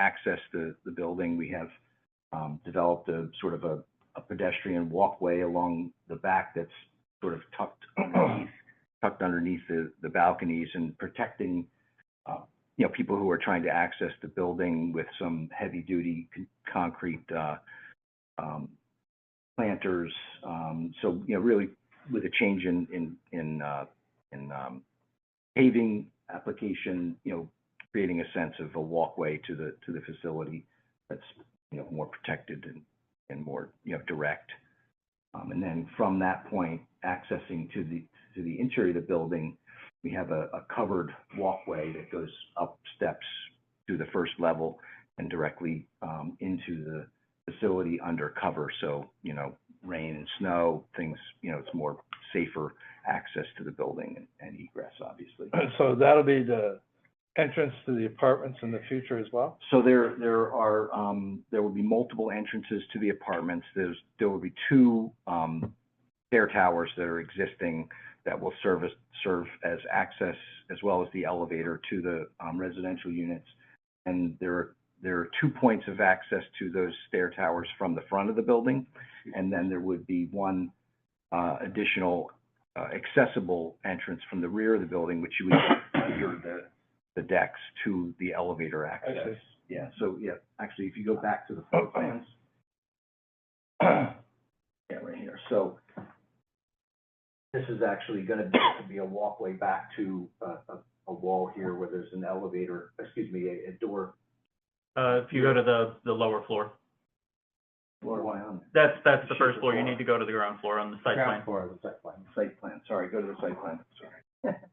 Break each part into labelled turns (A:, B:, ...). A: access the, the building. We have um, developed a sort of a, a pedestrian walkway along the back that's sort of tucked, tucked underneath the, the balconies and protecting, uh, you know, people who are trying to access the building with some heavy-duty con- concrete uh, um, planters. Um, So, you know, really with a change in, in, in, uh, in um, paving application, you know, creating a sense of a walkway to the, to the facility that's, you know, more protected and, and more, you know, direct. Um, and then from that point, accessing to the, to the interior of the building, we have a, a covered walkway that goes up steps to the first level and directly, um, into the facility under cover. So, you know, rain and snow, things, you know, it's more safer access to the building and- and egress, obviously.
B: So that'll be the entrance to the apartments in the future as well?
A: So there, there are, um, there will be multiple entrances to the apartments. There's, there will be two, um, stair towers that are existing that will serve as, serve as access as well as the elevator to the, um, residential units. And there, are there are two points of access to those stair towers from the front of the building. And then there would be one, uh, additional, uh, accessible entrance from the rear of the building, which you would under the, the decks to the elevator
B: I
A: access.
B: see.
A: Yeah, so, yeah, actually, if you go back to the floor plans. Yeah, right here, so this is actually gonna be, gonna be a walkway back to a, a, a wall here where there's an elevator, excuse me, a, a door.
C: Uh, if you go to the, the lower floor,
A: Floor one on.
C: that's, that's the
A: Sure,
C: first floor, you
A: floor.
C: need to go to the ground floor on the site plan.
A: floor, the site plan. Site plan, sorry, go to the site plan, sorry.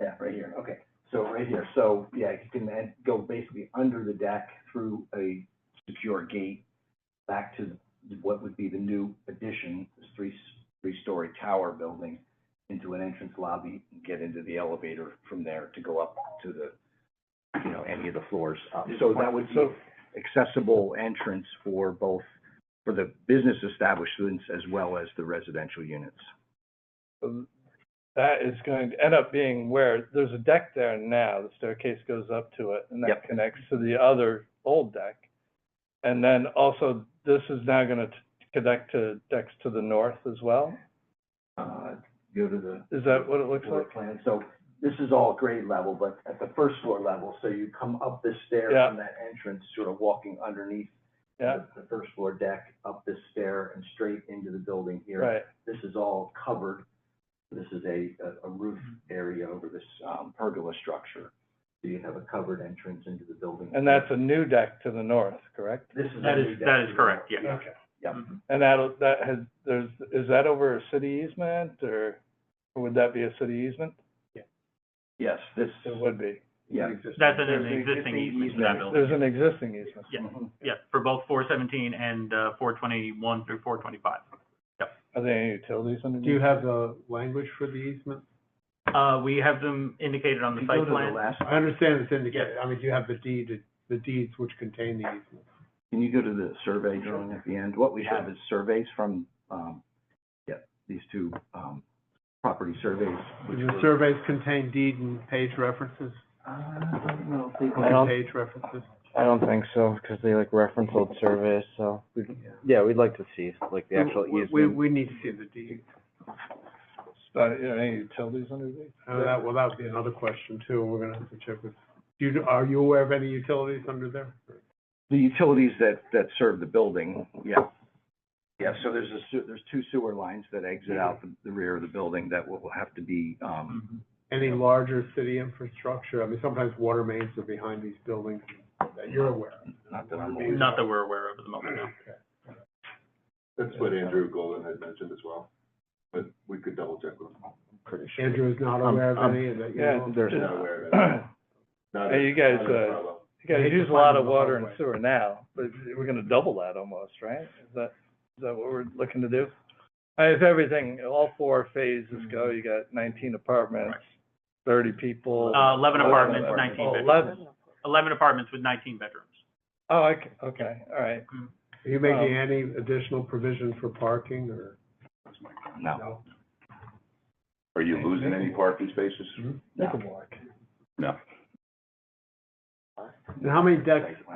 A: Yeah, right here, okay, so right here, so, yeah, you can then go basically under the deck through a secure gate back to what would be the new addition, this three, three-story tower building, into an entrance lobby, and get into the elevator from there to go up to the, you know, any of the floors up. So that would be
B: So,
A: accessible entrance for both, for the business establishments as well as the residential units.
B: um, that is going to end up being where, there's a deck there now, the staircase goes up to it, and that
A: Yep.
B: connects to the other old deck. And then also, this is now gonna t- connect to decks to the north as well?
A: Uh, Go to the.
B: Is that what it looks
A: floor
B: like?
A: plan. So this is all grade level, but at the first floor level, so you come up this stair
B: Yeah.
A: from that entrance, sort of walking underneath
B: Yeah,
A: the the first floor deck, up this stair and straight into the building here.
B: right,
A: This is all covered. This is a, a- a roof area over this um, pergola structure. So you have a covered entrance into the building.
B: and that's a new deck to the north, correct?
A: This is.
C: That
A: a
C: is-
A: new deck
C: that is
A: to the
C: correct,
A: north.
C: yeah.
B: Okay.
A: Yep.
C: Mhm.
B: And that'll, that has, there's, is that over a city easement, or or would that be a city easement?
A: Yes, this,
B: It would be.
A: yeah.
C: That's an existing easement for that building.
B: There's an existing easement.
C: Yeah.
A: Mhm.
C: Yeah, for both four seventeen and, uh, four twenty-one through four twenty-five.
B: Are there any utilities underneath?
D: Do you have the language for the easement?
C: Uh, we have them indicated on the
A: If you go
C: site
A: to the
C: plan.
A: last,
D: I understand it's indicated, I mean, do you have the deed, the deeds which contain the easement?
A: can you go to the survey drawing at the end? What we have is surveys from, um, yeah, these two, um, property surveys.
D: Do
A: which
D: the
A: were-
D: surveys contain deed and page references?
A: Uh, I don't know if they
B: I don't-
D: Page references?
E: I don't think so, because they like reference old surveys, so, we'd- yeah, we'd like to see, like, the actual
D: We- We,
E: easement.
D: we need to see the deed.
B: Uh, Are there any utilities underneath?
D: Oh, that, well, that would be another question too, we're gonna have to check with, do you, are you aware of any utilities under there?
A: The utilities that, that serve the building, yeah. Yeah, so there's a, sew- there's two sewer lines that exit out the- the rear of the building that will will have to be, um,
C: Mhm.
D: Any larger city infrastructure? I mean, sometimes water mains are behind these buildings that you're aware of.
A: not that I'm. aware of.
C: Not that we're aware of at the moment, no.
F: That's what Andrew Golden had mentioned as well, but we could double check with him.
E: Pretty sure.
D: Andrew is not
E: Um,
D: aware of
E: um,
D: any of that, you
B: yeah,
D: know?
E: There's
F: Not
E: not.
F: aware of it.
B: You
F: Not
B: Hey,
F: as-
B: you guys,
F: not as
B: uh,
F: well.
B: guys
D: Hate to
B: use a lot
D: find
B: of
D: the
B: water and
D: hallway.
B: sewer now, but we're gonna double that almost, right? Is that, is that what we're looking to do? Uh, If everything, all four phases go, you got nineteen apartments, thirty people.
C: Uh, eleven apartments,
B: Oh,
C: nineteen bedrooms.
B: Eleven,
C: Eleven apartments with nineteen bedrooms.
B: oh, I c- okay, all right.
D: Are you making
B: Um,
D: any additional provision for parking or?
A: No.
D: No.
F: Are you
B: mm-hmm.
F: losing any parking spaces?
D: Mhm.
B: You can walk.
F: No.
D: And how many decks,